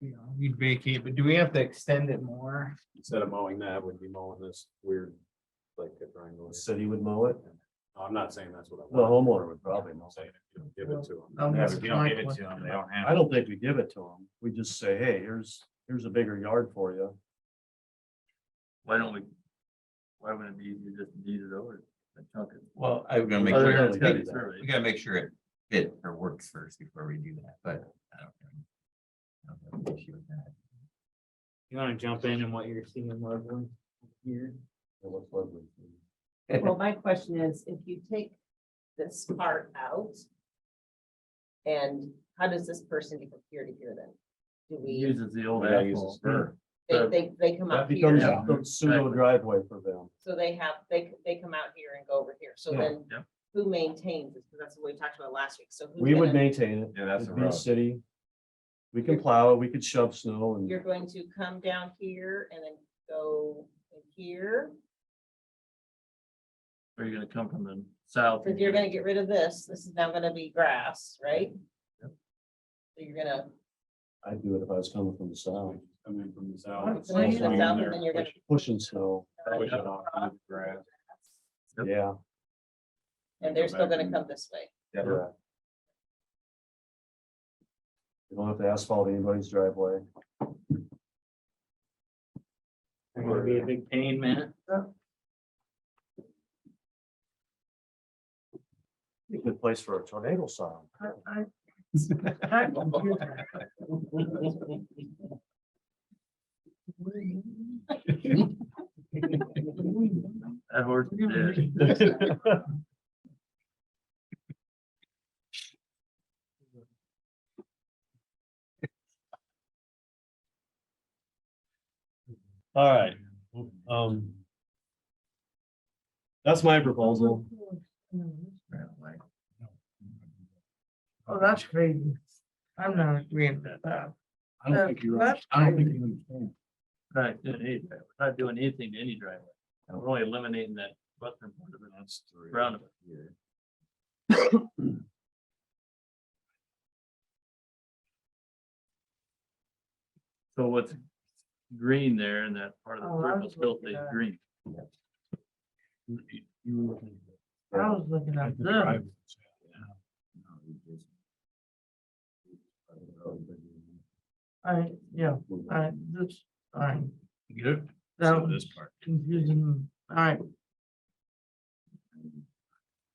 Yeah, we'd vacate, but do we have to extend it more? Instead of mowing that, would be mowing this weird, like the triangle. The city would mow it, I'm not saying that's what I the want. homeowner would probably mow I'm it. saying if you don't Give it to Um, them. Yeah, if you don't give it to 'em, they don't I don't think we give it to them. We just say, hey, here's, here's a bigger yard for you. Why don't we? Why wouldn't it be easier just to deed it over? and chunk it? Well, I'm gonna make Other sure, than It's gotta be that. surveyed. we gotta make sure it fit or works first before we do that, but I don't. I don't have an issue with that. You wanna jump in and what you're seeing, Leslie? Here, It looks lovely. Well, my question is, if you take this part out. And how does this person get from here to here then? Do we, Uses the old Yeah, uses asphole. spur. they, they, they come That out becomes here, a pseudo driveway for them. so they have, they, they come out here and go over here, so Yeah. then. Yep. Who maintains this, because that's what we talked about last week, so. who's We would gonna- maintain it. Yeah, that's It'd a be road. City. We can plow it, we could shove snow and. You're going to come down here and then go in here, Are you gonna come from the south? because you're gonna get rid of this, this is now gonna be grass, right? Yep. So you're gonna, I'd do it if I was coming from the south, Coming from the Oh, south. it's coming from the Swing south, there, and then you're gonna- push it- pushing snow, push it off into the grass. Yep. yeah. and they're Go still back gonna and- come this way. Yeah. correct. You don't have to asphalt anybody's driveway. it's gonna be a big pain, man. Be a good place for a tornado sign. That horse is dead. All right, um. That's my proposal. Oh, that's crazy. I'm not agreeing with that. I don't think you're, Uh, That's I don't think you understand. We're Not doing anything, we're not doing anything to any driveway. We're only eliminating that western part of it. That's three. Round of Here. So what's green there and that part of Oh, the I purple was still looking stays at- green. You- you- you were looking at I was looking at the this. driveway. No, we just- I, yeah, I, this, I, Get it? that So was This part. confusing. All right,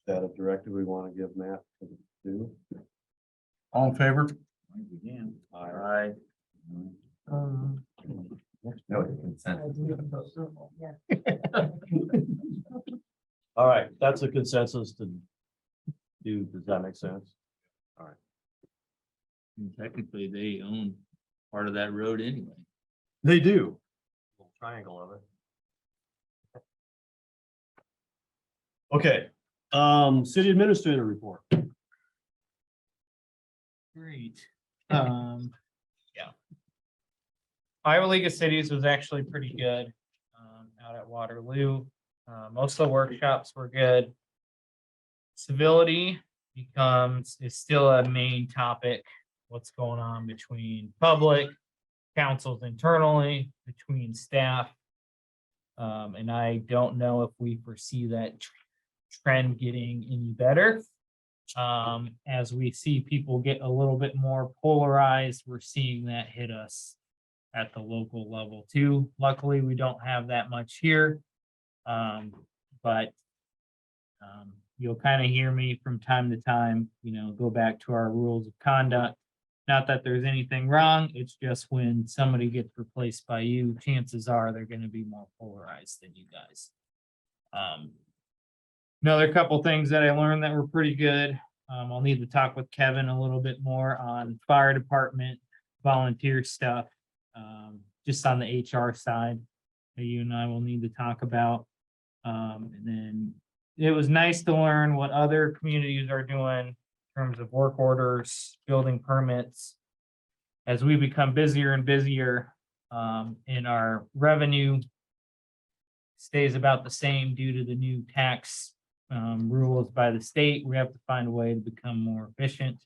That a directive we want to give Matt to do? All in favor? All right. um, No, it's consent. All right, that's a consensus to do. Does that make sense? And Technically, they own part of that road anyway. They do. Little Triangle of it. Okay, um, city administrator report. Great. Um, yeah. Iowa League of Cities was actually pretty good, um, out at Waterloo. Uh, most of the workshops were good. Civility becomes, is still a main topic, what's going on between public, councils internally, between staff. Um, and I don't know if we foresee that tr- trend getting any better. Um, as we see people get a little bit more polarized, we're seeing that hit us at the local level too. Luckily, we don't have that much here. Um, but um, you'll kind of hear me from time to time, you know, go back to our rules of conduct. Not that there's anything wrong, it's just when somebody gets replaced by you, chances are they're gonna be more polarized than you guys. Um, Another couple things that I learned that were pretty good. Um, I'll need to talk with Kevin a little bit more on fire department, volunteer stuff. Um, just on the HR side, that you and I will need to talk about. Um, and then it was nice to learn what other communities are doing in terms of work orders, building permits. As we become busier and busier, um, in our revenue stays about the same due to the new tax um, rules by the state. We have to find a way to become more efficient.